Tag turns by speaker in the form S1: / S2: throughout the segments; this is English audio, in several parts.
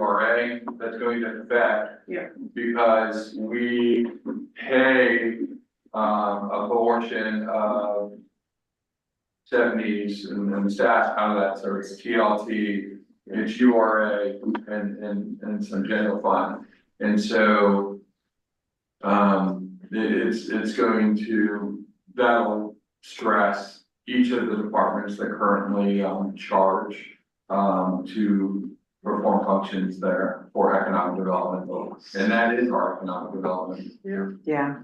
S1: URA that's going to affect.
S2: Yeah.
S1: Because we pay um a portion of. Seventies and and the stats out of that, so it's TLT, it's URA and and and some general fund, and so. Um, it- it's it's going to, that'll stress each of the departments that currently um charge. Um, to perform functions there for economic development, and that is our economic development.
S3: Yeah,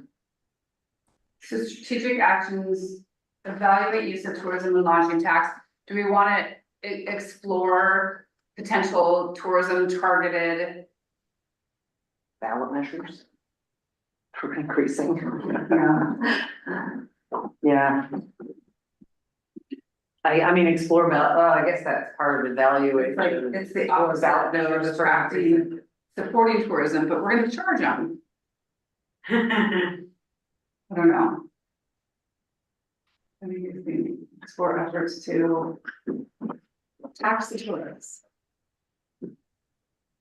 S4: So strategic actions, evaluate use of tourism and lodging tax, do we wanna e- explore potential tourism targeted?
S3: ballot measures. For increasing.
S4: Yeah.
S3: Yeah. I, I mean, explore, ballot. well, I guess that's part of evaluation.
S4: Like, it's the
S3: Explore
S4: opposite
S3: ballot
S4: of
S3: measures for
S4: attracting, supporting tourism, but we're gonna charge them, I don't know. I mean, if we explore efforts to tax the tourists.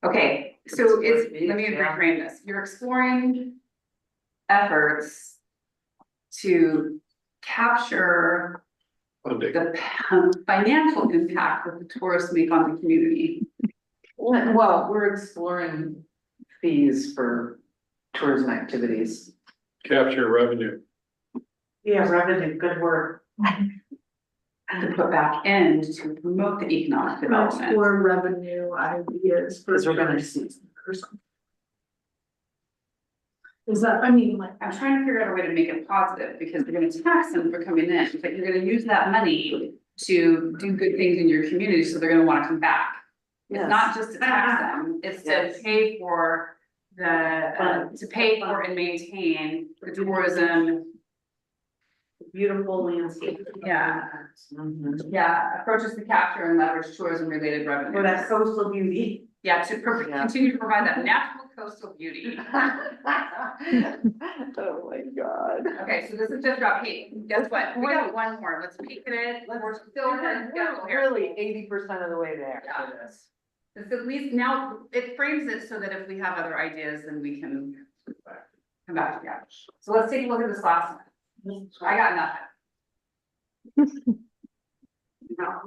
S4: Okay, so it's, let me
S3: Yeah.
S4: reframe this, you're exploring efforts to capture the financial impact that the tourists make on the community.
S3: Well, we're exploring fees for tourism activities.
S5: capture revenue.
S2: Yeah, revenue, good work.
S4: To put back in to promote the economic development.
S2: Explore revenue ideas for.
S3: Because we're gonna
S2: tourism
S3: see,
S2: Or something. Is that, I mean, like,
S4: I'm trying to figure out a way to make it positive, because you're gonna tax them for coming in, but you're gonna use that money to do good things in your community, so they're gonna wanna come back. It's not
S3: yes,
S4: just to tax them, it's to
S3: Yes.
S4: pay for the, uh, to pay for and maintain the tourism.
S2: beautiful landscape.
S4: Yeah.
S3: mhm.
S4: Yeah, approaches to capture and leverage tourism related revenue.
S2: For that coastal beauty.
S4: Yeah, to pro-
S3: Yeah.
S4: continue to provide that natural coastal beauty.
S3: Oh, my God.
S4: Okay, so this is just about paint. Guess what? We got one more. Let's peek at it. We're still gonna go here.
S3: Really eighty percent of the way there.
S4: Yeah. This at least now, it frames it so that if we have other ideas, then we can come back to that. So let's take a look at this last one. I got nothing.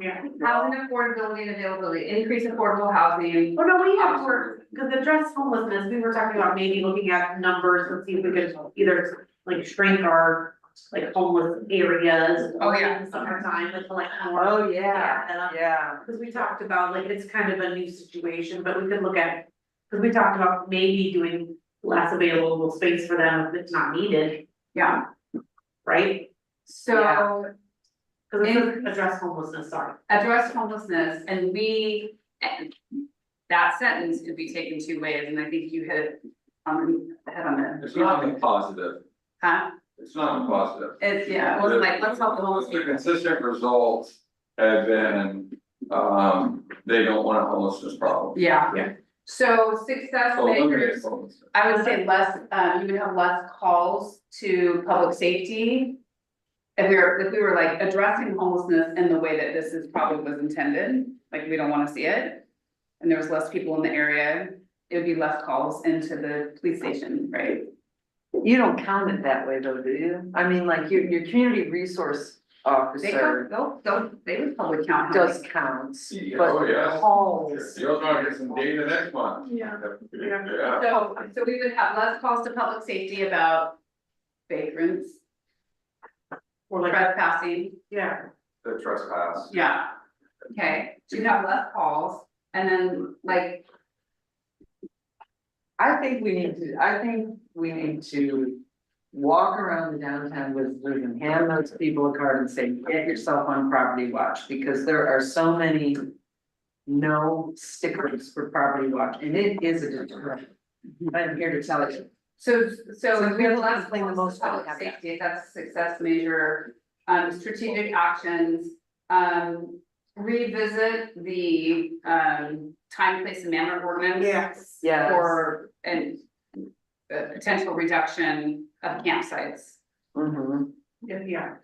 S2: Yeah.
S4: Housing affordability and availability, increase affordable housing.
S2: Oh, no, we have to work, because the address homelessness, we were talking about maybe looking at numbers and see if we could either like shrink our like homeless areas.
S4: Oh, yeah.
S2: in Summertime with like more.
S3: Oh, yeah,
S2: and, uh,
S3: yeah.
S2: Cause we talked about, like, it's kind of a new situation, but we could look at, cause we talked about maybe doing less available space for them if it's not needed,
S4: Yeah,
S2: right?
S4: so
S2: Cause it doesn't address homelessness, sorry.
S4: address homelessness and we, and that sentence could be taken two ways, and I think you hit it on the head on the.
S1: It's not a positive,
S4: Huh?
S1: it's not a positive.
S4: It's, yeah, it wasn't like, let's help the homeless
S1: The
S4: people.
S1: consistent results have been, um, they don't want a homelessness problem.
S4: Yeah.
S2: Yeah.
S4: So success
S1: So eliminate
S4: makers,
S1: homelessness.
S4: I would say less, um, you would have less calls to public safety. If we were, if we were like addressing homelessness in the way that this is probably was intended, like we don't wanna see it. And there was less people in the area, it would be less calls into the police station, right?
S3: You don't count it that way though, do you? I mean, like your, your community resource
S4: They don't,
S3: officer
S4: they'll, they'll, they would probably count. how
S3: does
S4: many-
S3: count,
S1: Yeah, oh,
S3: but
S1: yes.
S3: calls.
S1: You're gonna get some data next month.
S2: Yeah.
S1: Yeah.
S4: So, so we would have less calls to public safety about vagrants,
S2: Or like,
S4: trespassing,
S2: yeah,
S1: The trespass.
S4: yeah. Okay, so you have less calls and then like,
S3: I think we need to, I think we need to walk around the downtown Whistler and hand those people a card and say, get yourself on property watch, because there are so many no stickers for property watch, and it is a deterrent. I'm here to tell you.
S4: so, so
S3: So
S4: if we have
S3: we
S4: less
S3: complain the
S4: calls to
S3: most
S4: public
S3: about having that.
S4: safety, that's a success measure. Um, strategic actions, um, revisit the, um, time, place and manner ordinance.
S2: Yes.
S3: Yes.
S4: Or, and uh, potential reduction of campsites.
S3: Mhm.
S2: yeah,